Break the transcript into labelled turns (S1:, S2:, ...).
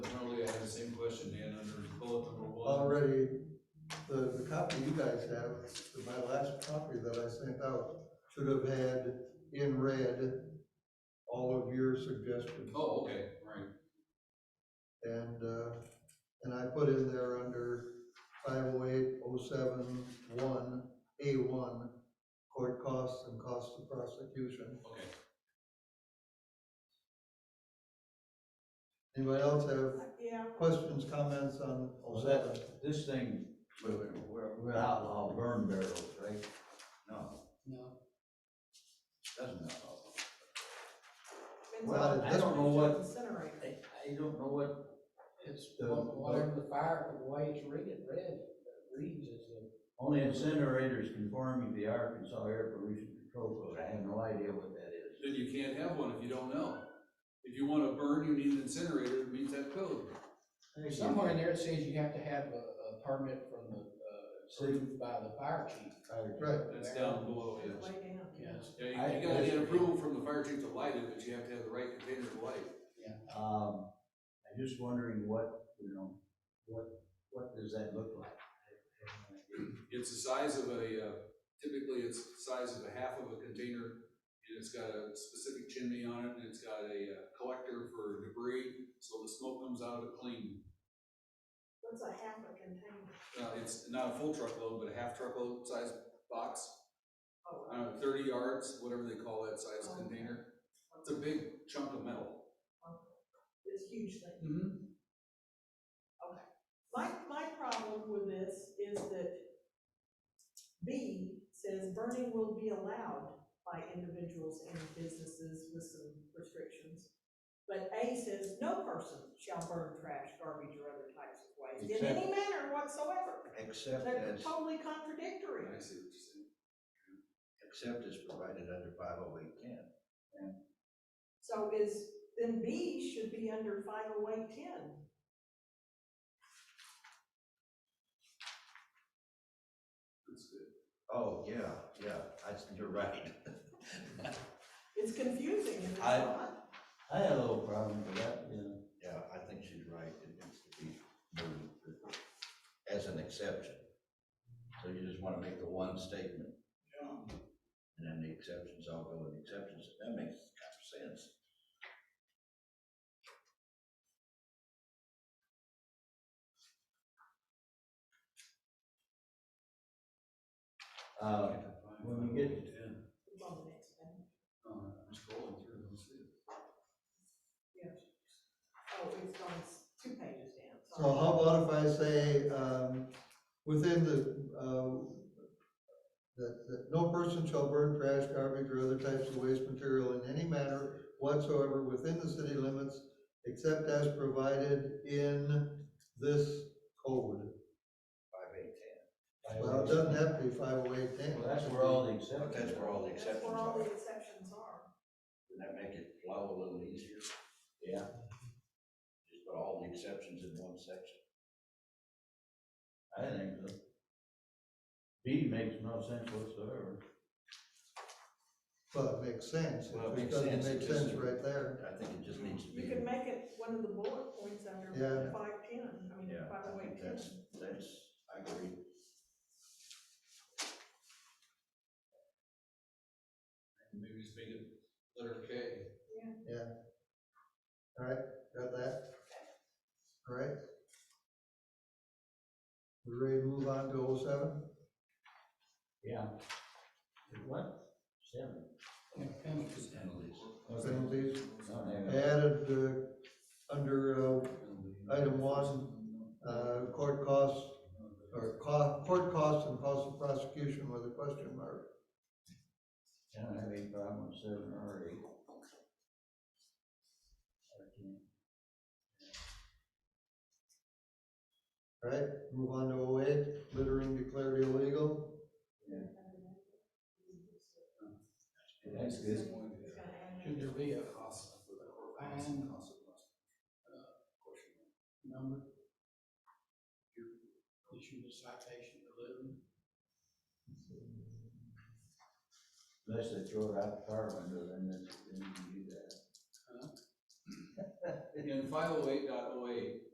S1: Oh, copy you guys have, but my last copy that I sent out should have had in red all of your suggestions.
S2: Oh, okay, right.
S1: And, uh, and I put in there under five oh eight oh seven one, A one, court costs and costs of prosecution.
S2: Okay.
S1: Anybody else have
S3: Yeah,
S1: questions, comments on
S4: Was
S1: 07?
S4: that, this thing, we're, we're, we're outlaw burn barrels, right? No,
S5: No,
S4: doesn't outlaw.
S3: depends
S4: Well,
S3: on
S1: I
S3: the
S4: don't know what-
S3: incinerator.
S4: I, I don't know what,
S5: it's
S4: The-
S5: what- whatever the fire, the way it's read, read, reads is the.
S4: only incinerators conforming to the Arkansas Air Pollution Control Code, I have no idea what that is.
S2: Then you can't have one if you don't know. If you wanna burn, you need an incinerator that meets that code.
S5: There's somewhere in there it says you have to have a, a permit from the, uh, approved by the fire chief.
S1: Right.
S2: That's down below, yes.
S3: Way down.
S5: Yes,
S2: Yeah,
S4: I-
S2: you- you gotta
S4: that's-
S2: get approval from the fire chief to light it, but you have to have the right container to light. it.
S4: Um, I'm just wondering what, you know, what, what does that look like? I have no idea.
S2: It's the size of a, uh, typically it's the size of a half of a container, and it's got a specific chimney on it, and it's got a uh, collector for debris, so the smoke comes out of it clean.
S3: What's a half a container?
S2: Uh, It's not a full truckload, but a half truckload size box,
S3: Oh,
S2: I don't know, thirty yards, whatever they call that size
S3: Oh.
S2: container. It's a big chunk of metal.
S3: This huge thing.
S2: Mm-hmm.
S3: My, my problem with this is that B says burning will be allowed by individuals and businesses with some restrictions. But A says no person shall burn trash, garbage, or other types of waste in any manner whatsoever.
S4: Except
S3: They're
S4: as,
S3: totally contradictory.
S2: I see what you're saying.
S4: except as provided under five oh eight ten.
S3: So is, then B should be under five oh eight ten.
S2: That's good.
S4: Oh, yeah, yeah, that's, you're right.
S3: It's confusing and it's
S4: I-
S3: not.
S4: I had a little problem with that, you know.
S6: Yeah, I think she's right, it needs to be moved as an exception. So you just wanna make the one statement. And then the exceptions all go with the exceptions, that makes kind of sense.
S4: Uh, when we get-
S2: Yeah.
S3: It's on the next page.
S2: Uh, I'm scrolling through, let's see.
S3: Oh, it's on s- two pages down.
S1: So how about if I say, um, within the, uh, that, that no person shall burn trash, garbage, or other types of waste material in any manner whatsoever within the city limits, except as provided in this code.
S6: Five, eight, ten.
S1: Well, it doesn't have to be five oh eight ten.
S4: Well, that's where all the
S6: But
S4: exceptions
S6: that's where
S4: are.
S6: all the
S3: That's
S6: exceptions
S3: where all
S6: are,
S3: the exceptions are.
S6: Doesn't that make it flow a little easier?
S4: Yeah.
S6: Just put all the exceptions in one section.
S4: I think so. B makes no sense whatsoever.
S1: Well, it makes sense,
S6: Well,
S1: it
S6: it
S1: just
S6: makes
S1: doesn't
S6: sense, it
S1: make
S6: just-
S1: sense right there.
S6: I think it just needs to be.
S3: You can make it one of the bullet points under
S1: Yeah.
S3: five ten, I mean,
S6: Yeah,
S3: five
S6: I
S3: oh
S6: think
S3: eight ten.
S6: that's, that's, I agree.
S2: Maybe just make it letter K.
S1: Got that? All right. We ready to move on to oh seven?
S4: Yeah. What? Seven.
S5: and penalties.
S6: Penalties.
S1: Penalties?
S4: No, they haven't.
S1: added uh, under uh, item one, uh, court costs, or co- court costs and cost of prosecution with a question mark.
S4: I don't have any problem with seven or eight. I can't.
S1: All right, move on to 08. littering declared illegal.
S4: That's good.
S5: Should there be a
S2: Cost for the court, cost,
S5: Fine.
S2: cost of cost. Uh, question.
S5: number? You Issue the citation to live.
S4: Unless they throw it out the car window, then that's, then you can do that.
S2: In five oh eight dot oh eight,